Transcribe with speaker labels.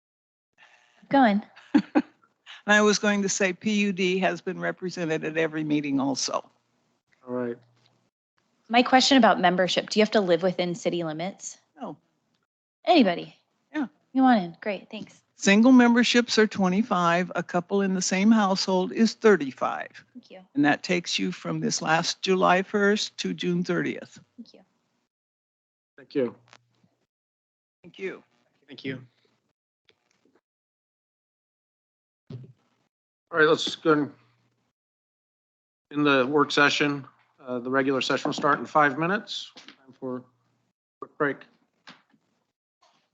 Speaker 1: going.
Speaker 2: And I was going to say PUD has been represented at every meeting also.
Speaker 3: All right.
Speaker 1: My question about membership, do you have to live within city limits?
Speaker 2: No.
Speaker 1: Anybody?
Speaker 2: Yeah.
Speaker 1: You want in? Great, thanks.
Speaker 2: Single memberships are 25, a couple in the same household is 35.
Speaker 1: Thank you.
Speaker 2: And that takes you from this last July 1st to June 30th.
Speaker 1: Thank you.
Speaker 3: Thank you.
Speaker 2: Thank you.
Speaker 3: Thank you. All right, let's go and- in the work session. uh, The regular session will start in five minutes. Time for a quick break.